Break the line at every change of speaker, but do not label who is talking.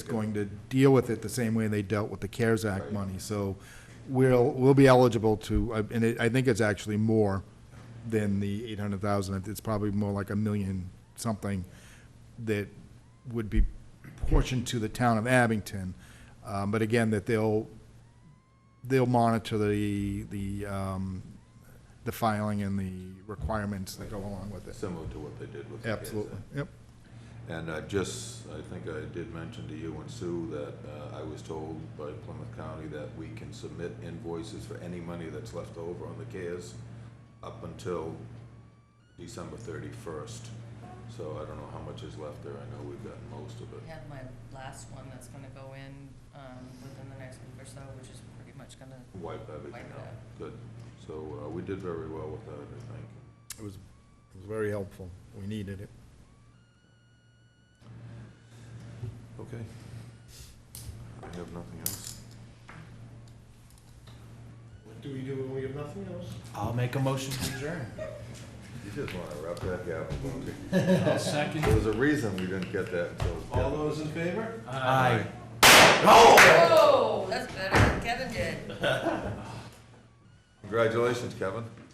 going to deal with it the same way they dealt with the CARES Act money. So we'll, we'll be eligible to, uh, and it- I think it's actually more than the 800,000. It's probably more like a million something that would be portioned to the town of Abington. Um, But again, that they'll, they'll monitor the, the, um, the filing and the requirements that go along with it.
Similar to what they did with the kids.
Absolutely, yep.
And I just, I think I did mention to you and Sue that uh, I was told by Plymouth County that we can submit invoices for any money that's left over on the CARES up until December 31st. So I don't know how much is left there. I know we've gotten most of
I
it.
have my last one that's gonna go in, um, within the next week or so, which is pretty much gonna,
Wipe everything
Wipe it
out. Good. So uh, we did very well with that, I think.
It was, it was very helpful. We needed it.
Okay. I have nothing else.
What do we do when we have nothing else?
I'll make a motion to adjourn.
You just want to wrap that up.
I'll second.
There was a reason we didn't get that until.
All those in favor?
Aye.
oh, that's better than Kevin did.
Congratulations, Kevin.